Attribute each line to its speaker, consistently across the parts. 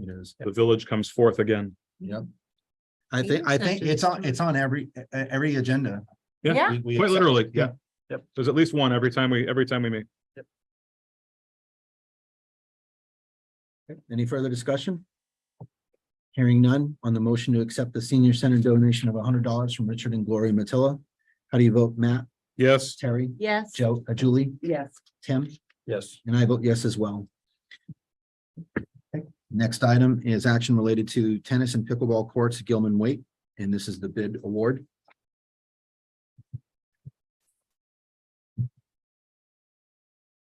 Speaker 1: It is. The village comes forth again.
Speaker 2: I think, I think it's on, it's on every, e- e- every agenda.
Speaker 3: Yeah.
Speaker 2: We- we
Speaker 1: Quite
Speaker 2: accept-
Speaker 1: literally, yeah. Yep. There's at least one every time we, every time we meet.
Speaker 4: Any further discussion? Hearing none on the motion to accept the senior center donation of hundred dollars from Richard and Gloria Matilla. How do you vote, Matt,
Speaker 1: Yes,
Speaker 4: Terry,
Speaker 3: Yes.
Speaker 4: Joe, uh, Julie,
Speaker 3: Yes.
Speaker 4: Tim?
Speaker 5: Yes.
Speaker 4: And I vote yes as well. Next item is action related to tennis and pickleball courts, at Gilman Waite, and this is the bid award.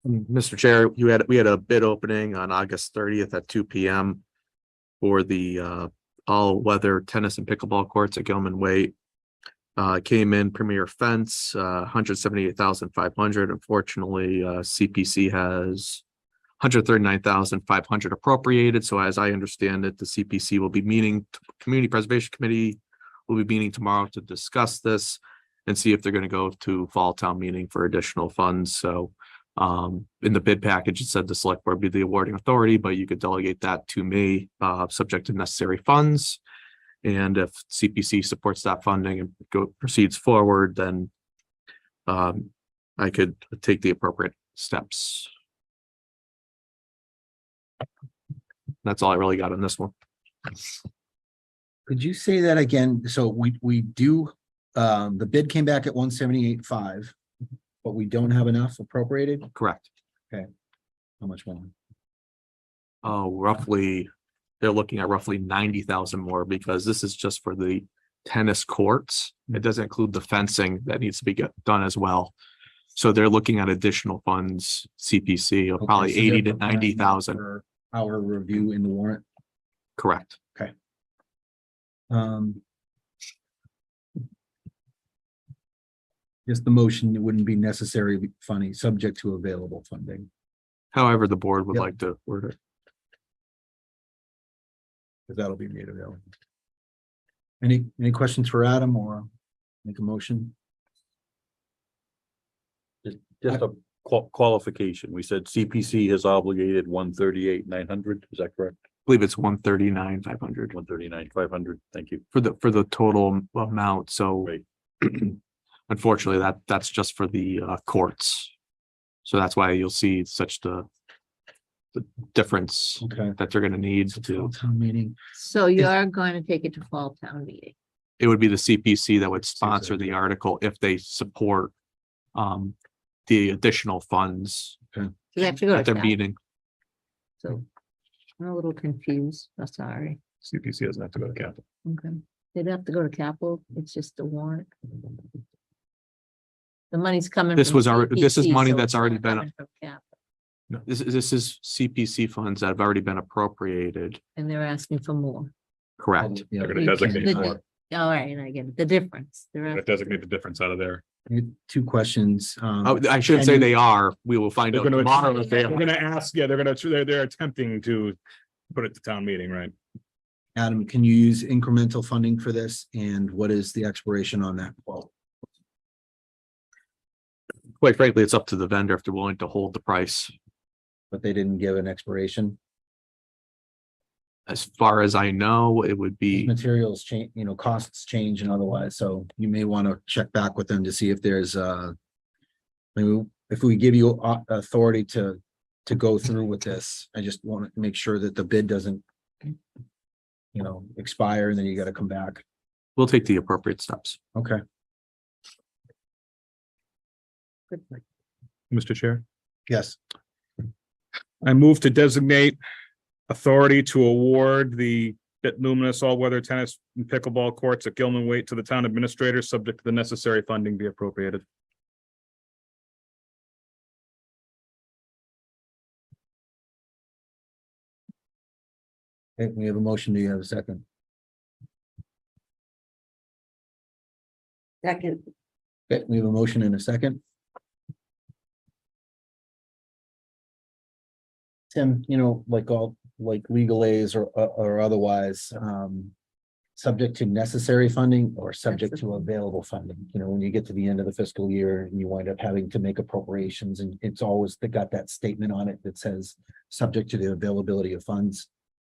Speaker 6: Mr. Mm, Chair, you had, we had a bid opening on August thirtieth at two P M. For the uh all-weather tennis and pickleball courts at Gilman Way. Uh, came in premier fence, uh, hundred seventy-eight thousand five hundred. Unfortunately, uh, C P C has hundred thirty-nine thousand five hundred appropriated. So as I understand it, the C P C will be meeting, Community Preservation Committee will be meeting tomorrow to discuss this and see if they're going to go to fall town meeting for additional funds. So um, in the bid package, it said the select board be the awarding authority, but you could delegate that to me, uh, subject to necessary funds. And if CPC supports that funding and go proceeds forward, then um, I could take the appropriate steps. That's all I really got on this one.
Speaker 4: Could you say that again? So we, we do, um, the bid came back at one seventy-eight five, but we don't have enough appropriated?
Speaker 6: Correct.
Speaker 4: How much more?
Speaker 6: Oh, roughly, they're looking at roughly ninety thousand more because this is just for the tennis courts.
Speaker 4: Hmm.
Speaker 6: It doesn't include the fencing that needs to be get- done as well. So they're looking at additional funds, CPC of probably
Speaker 4: Okay, so they're
Speaker 6: eighty to
Speaker 4: providing
Speaker 6: ninety thousand,
Speaker 4: for Our review in the warrant.
Speaker 6: correct?
Speaker 4: Um. Just the motion wouldn't be necessary funding, subject to available funding.
Speaker 6: However, the board would
Speaker 4: Yep.
Speaker 6: like to word it.
Speaker 4: Cause that'll be made available. Any, any questions for Adam or make a motion?
Speaker 5: Just a qual- qualification. We said CPC has obligated one thirty-eight, nine hundred. Is that correct?
Speaker 6: I believe it's one thirty-nine, five hundred
Speaker 5: One thirty-nine, five hundred. Thank you.
Speaker 6: for the, for the total amount, so.
Speaker 5: Right.
Speaker 6: Unfortunately, that, that's just for the uh, courts. So that's why you'll see such the the difference
Speaker 4: Okay.
Speaker 6: that they're gonna need
Speaker 4: It's a full
Speaker 6: to,
Speaker 4: town meeting.
Speaker 3: So you are going to take it to fall town meeting.
Speaker 6: it would be the CPC that would sponsor the article if they support um the additional funds
Speaker 3: You have to go
Speaker 6: at
Speaker 3: to
Speaker 6: their
Speaker 3: town.
Speaker 6: meeting.
Speaker 3: So I'm a little confused. I'm sorry.
Speaker 1: CPC doesn't have to go to capital.
Speaker 3: Okay. They'd have to go to capital. It's just a warrant. The money's coming.
Speaker 6: This
Speaker 3: from
Speaker 6: was alre- this is
Speaker 3: CPC,
Speaker 6: money
Speaker 3: so
Speaker 6: that's
Speaker 3: it's not
Speaker 6: already been-
Speaker 3: coming from cap.
Speaker 6: This is, this is CPC funds that have already been appropriated,
Speaker 3: And they're asking for more.
Speaker 6: correct?
Speaker 4: Yeah.
Speaker 1: They're gonna designate
Speaker 3: The-
Speaker 1: more.
Speaker 3: All right, and I get it. The difference. They're
Speaker 1: But
Speaker 3: asking-
Speaker 1: designate the difference out of there.
Speaker 4: Two questions. um,
Speaker 6: Oh, I shouldn't say they are, we will find
Speaker 1: They're
Speaker 6: out
Speaker 1: gonna,
Speaker 6: tomorrow if they
Speaker 1: they're
Speaker 6: are.
Speaker 1: gonna ask, yeah, they're gonna, they're, they're attempting to put it to town meeting, right?
Speaker 4: Adam, can you use incremental funding for this? And what is the expiration on that quote?
Speaker 6: Quite frankly, it's up to the vendor if they're willing to hold the price.
Speaker 4: But they didn't give an expiration.
Speaker 6: As far as I know, it would
Speaker 4: these
Speaker 6: be,
Speaker 4: materials change, you know, costs change and otherwise, so you may want to check back with them to see if there's uh Maybe if we give you au- authority to to go through with this, I just want to make sure that the bid doesn't. You know, expire and then you got to come back.
Speaker 6: we'll take the appropriate steps.
Speaker 4: Okay,
Speaker 1: Mr. Chair,
Speaker 4: yes.
Speaker 1: I move to designate authority to award the bit luminous all-weather tennis and pickleball courts at Gilman Waite to the town administrator, subject to the necessary funding be appropriated.
Speaker 4: Okay, We have a motion. Do you have a second?
Speaker 3: Second.
Speaker 4: Okay, we have a motion in a second. Tim, you know, like all, like legal aids or, or otherwise, um. Subject to necessary funding or subject to available funding, you know, when you get to the end of the fiscal year and you wind up having to make appropriations and it's always, they got that statement on it that says. Subject to the availability of funds.